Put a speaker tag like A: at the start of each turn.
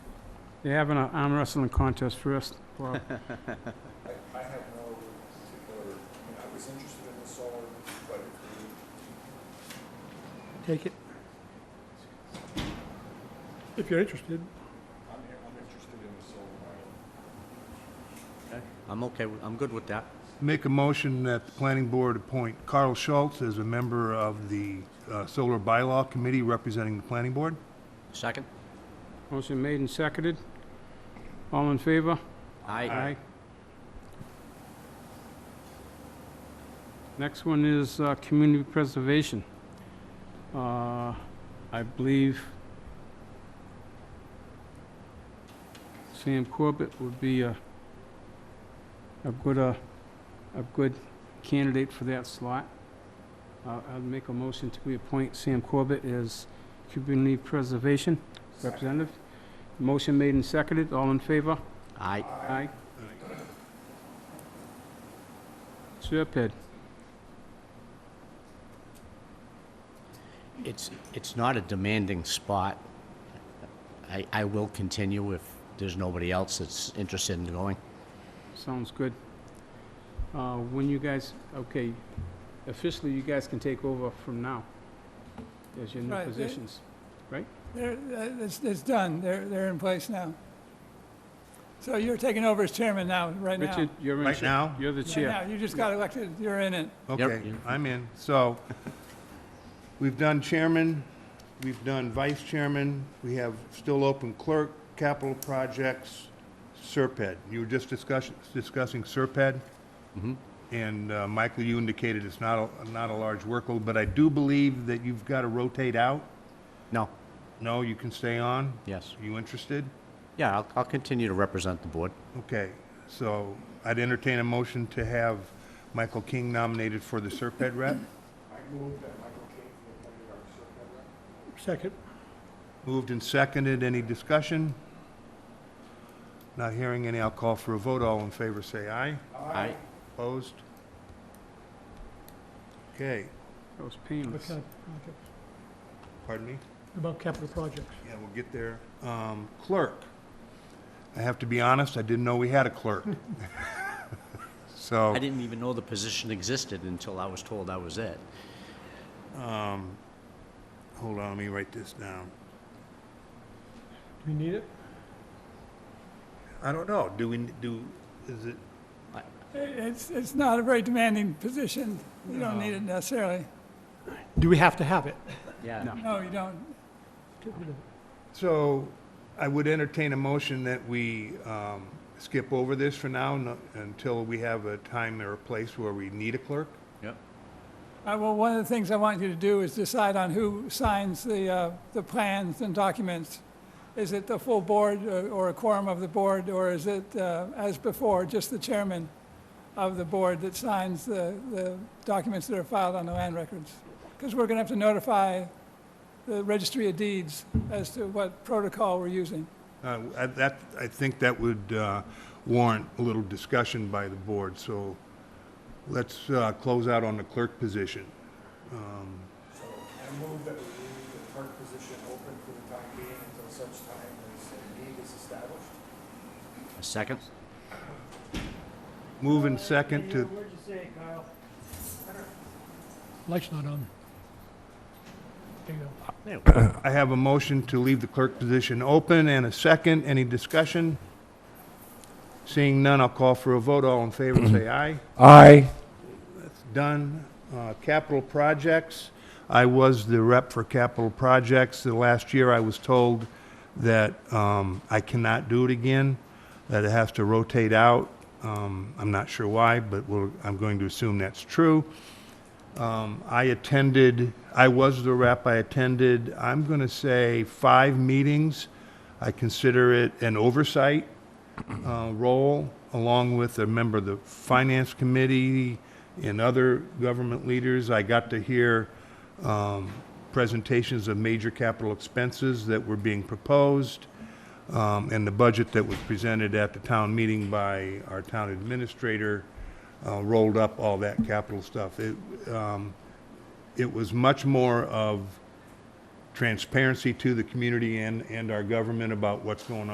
A: They're having an arm wrestling contest first. Well,
B: I, I have no particular, I mean, I was interested in the solar, but if we
C: Take it. If you're interested.
B: I'm, I'm interested in the solar model.
D: I'm okay, with- I'm good with that.
E: Make a motion that the planning board appoint Carl Schultz as a member of the uh, Solar Bylaw Committee representing the planning board.
D: Second?
A: motion made and seconded. All in favor?
D: Aye.
A: Next one is uh, community preservation. Uh, I believe Sam Corbett would be a, a good, uh, a good candidate for that slot. Uh, I'd make a motion to reappoint Sam Corbett as community preservation representative. Motion made and seconded, all in favor?
D: Aye.
A: Aye. Serpent,
D: It's, it's not a demanding spot. I, I will continue if there's nobody else that's interested in going.
A: sounds good. Uh, When you guys, okay, officially, you guys can take over from now as your new
F: Right, they-
A: positions.
F: They're, that- it's, it's done, they're, they're in place now. So you're taking over as chairman now, right now?
A: Richard, you're in.
E: Right
A: cha-
E: now?
A: You're the
F: Right
A: chair.
F: now, You just got elected, you're in it.
E: Okay,
D: Yep.
E: I'm in. So, we've done chairman, we've done vice chairman, we have still open clerk, capital projects, Serped. You were just discussing, discussing Serped?
D: Mm-hmm.
E: And, uh, Michael, you indicated it's not, a not a large workload, but I do believe that you've got to rotate out.
D: No,
E: No, you can stay on?
D: yes.
E: You interested?
D: Yeah, I'll, I'll continue to represent the board.
E: Okay, so I'd entertain a motion to have Michael King nominated for the Serped rep.
C: Second.
E: Moved and seconded, any discussion? Not hearing any, I'll call for a vote, all in favor say aye.
D: Aye.
E: Opposed? Okay,
A: That was painless.
C: What kind of projects?
E: pardon me?
C: About capital projects.
E: Yeah, we'll get there. Um, Clerk. I have to be honest, I didn't know we had a clerk. So,
D: I didn't even know the position existed until I was told I was it.
E: hold on, let me write this down.
C: Do we need it?
E: I don't know, do we, do, is it,
F: It- It's, it's not a very demanding position, you don't need it necessarily.
C: Do we have to have it?
D: Yeah.
F: No, you don't,
E: So I would entertain a motion that we um, skip over this for now no- until we have a time or a place where we need a clerk.
D: Yep.
F: Uh, Well, one of the things I want you to do is decide on who signs the, uh, the plans and documents. Is it the full board uh, or a quorum of the board, or is it, uh, as before, just the chairman of the board that signs the, the documents that are filed on the land records? Because we're going to have to notify the registry of deeds as to what protocol we're using.
E: Uh, I- That, I think that would uh, warrant a little discussion by the board, so let's uh, close out on the clerk position.
B: So I move that we leave the clerk position open for the time being until such time as a need is established.
D: A second?
E: Move in second to,
C: Light's not on. There you go.
D: There we go.
E: I have a motion to leave the clerk position open and a second. Any discussion? Seeing none, I'll call for a vote. All in favor, say aye.
B: Aye.
E: done. Uh, Capital projects, I was the rep for capital projects. The last year, I was told that um, I cannot do it again, that it has to rotate out. Um, I'm not sure why, but we'll- I'm going to assume that's true. Um, I attended, I was the rep, I attended, I'm going to say, five meetings. I consider it an oversight uh, role, along with a member of the Finance Committee and other government leaders. I got to hear um, presentations of major capital expenses that were being proposed, um, and the budget that was presented at the town meeting by our town administrator uh, rolled up all that capital stuff. It, um, It was much more of transparency to the community and, and our government about what's going on.